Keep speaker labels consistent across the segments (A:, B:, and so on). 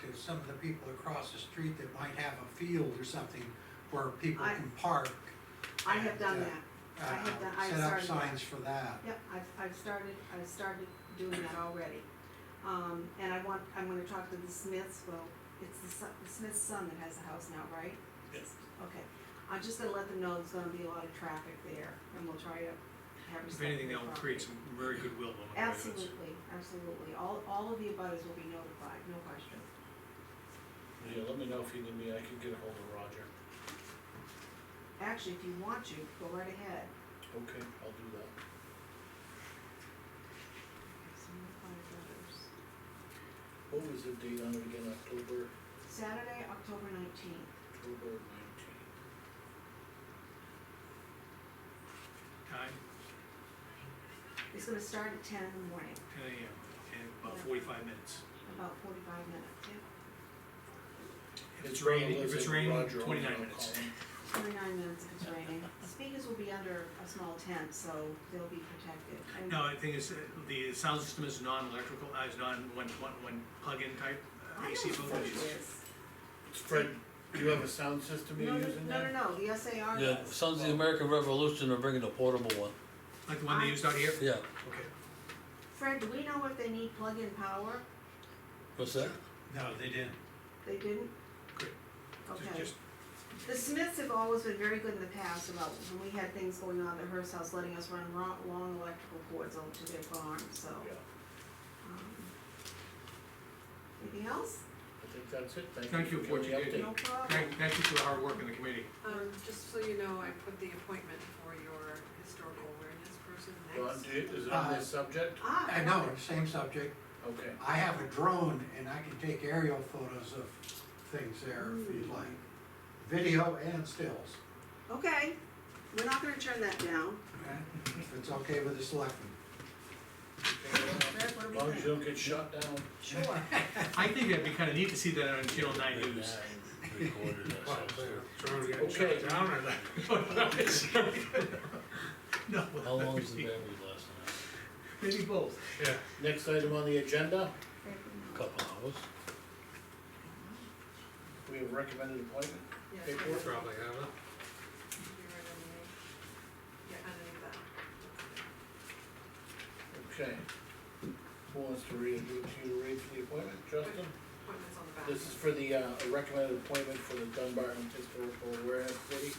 A: to some of the people across the street that might have a field or something where people
B: I-
A: can park.
B: I have done
A: Yeah.
B: that, I have
A: uh,
B: done- I've started
A: Set up
B: that.
A: signs for that.
B: yep, I've, I've started, I've started doing that already. Um, and I want, I'm gonna talk to the Smiths, well, it's the son, the Smith's son that has the house now, right?
C: Yes.
B: Okay, I'm just gonna let them know there's gonna be a lot of traffic there, and we'll try to have respect
C: If
B: for
C: anything,
B: their
C: that will
B: property.
C: create some very goodwill among the residents.
B: Absolutely, absolutely, all, all of the abutters will be notified, no question.
D: Yeah, let me know if you need me, I can get ahold of Roger.
B: Actually, if you want to, go right ahead.
D: Okay, I'll do that.
B: Some notified abutters.
D: What was the date on it again, October,
B: Saturday, October nineteenth.
D: October nineteenth?
C: Time,
B: It's gonna start at ten in the morning,
C: ten AM, and about forty-five minutes.
B: about forty-five minutes, yeah,
C: If it's raining, if it's raining, twenty-nine minutes.
B: twenty-nine minutes if it's raining. Speakers will be under a small tent, so they'll be protected. And-
C: No, the thing is, uh, the sound system is non-electrical, uh, is non, one, one, one plug-in type uh,
B: I
C: AC
B: know what
C: voltage.
B: it is.
D: Fred, do you have a sound system
B: No,
D: you're
B: no,
D: using
B: no,
D: there?
B: no, no, the SAR
E: Yeah,
B: does.
E: Sons of the American Revolution are bringing a portable one,
C: Like the one they used out here?
E: yeah,
C: Okay.
B: Fred, do we know if they need plug-in power?
E: what's that?
A: No, they didn't.
B: They didn't?
C: Good. Ju-
B: Okay.
C: Just,
B: The Smiths have always been very good in the past about when we had things going on at Hearst House, letting us run long, long electrical cords over to their barn, so.
D: Yeah,
B: um, Anything else?
D: I think that's it,
C: Thank
D: thank
C: you
D: you for
C: for
D: the
C: what you did.
D: update.
B: No problem.
C: thank, thank you for the hard work in the committee.
F: Um, just so you know, I put the appointment for your historical awareness person
D: Ron,
F: next.
D: do you- is it on this subject?
B: Ah,
A: I know, same subject.
D: Okay,
A: I have a drone and I can take aerial photos of things there if
B: Hmm.
A: you'd like. Video and stills,
B: Okay, we're not gonna turn that down.
A: okay? If it's okay with the selectmen.
B: Fred, what do
D: as
B: we
D: long as
B: think?
D: you don't get shot down.
B: Sure.
C: I think that'd be kinda neat to see that on Channel Nine News.
E: Recorded, I suppose.
D: Okay.
C: No.
E: How long is the battery last
C: Maybe both.
D: Next item on the agenda,
E: now? Couple hours?
D: we have recommended appointment.
F: Yes,
D: Hey,
F: you're
D: Paul.
F: right
G: Probably have it.
F: underneath. Yeah, underneath that.
D: Okay. Who wants to read, do you to read for the appointment, Justin?
F: Appointment's on the back.
D: This is for the, uh, a recommended appointment for the Dunbar and Historical Awareness Committee.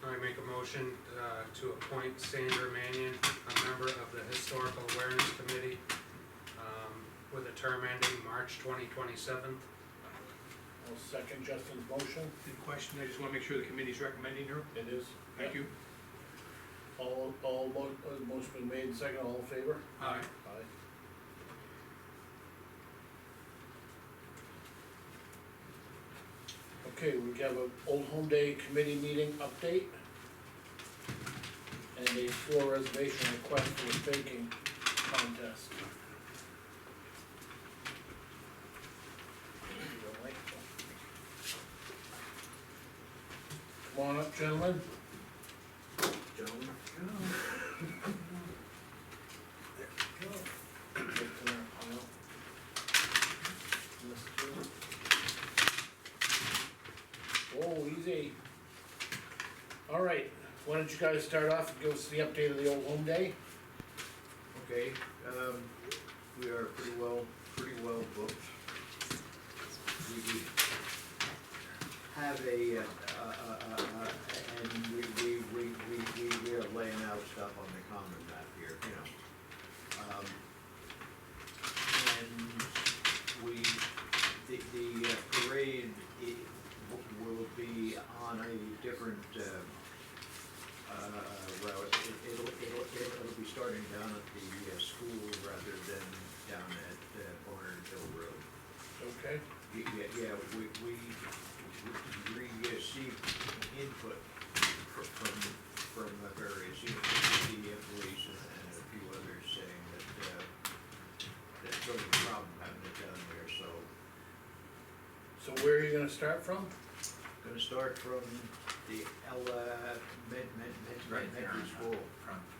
G: I make a motion uh, to appoint Sandra Mannion, a member of the Historical Awareness Committee, um, with a term ending March twenty twenty-seven.
D: I'll second Justin's motion,
C: In question, I just wanna make sure the committee's recommending her.
D: it is.
C: Thank you.
D: All, all, mo- uh, motion been made, second, all in favor?
C: Aye.
D: Aye. Okay, we have a Old Home Day Committee meeting update. And a floor reservation request for a baking contest. Come on up, gentlemen. Gentlemen. Just in our pile. This too. Whoa, Oh, easy. All right, why don't you guys start off and give us the update of the old home day?
H: Okay, um, we are pretty well, pretty well booked. We have a, uh, uh, uh, uh, and we, we, we, we, we- we are laying out stuff on the common map here, you know. Um, And we, the, the uh, parade, it w- will be on a different, um, uh, well, it- it'll, it'll, it'll it'll be starting down at the uh, school rather than down at uh, Barnard Hill Road.
D: Okay,
H: Y- Yeah, yeah, we, we, we received input fr- from, from the various, you know, the employees and and a few others saying that, uh, that sort of a problem having it down there, so
D: so where are you gonna start from?
H: gonna start from the Ella Med, Med, Med,
I: Right there.
H: Med School.
I: From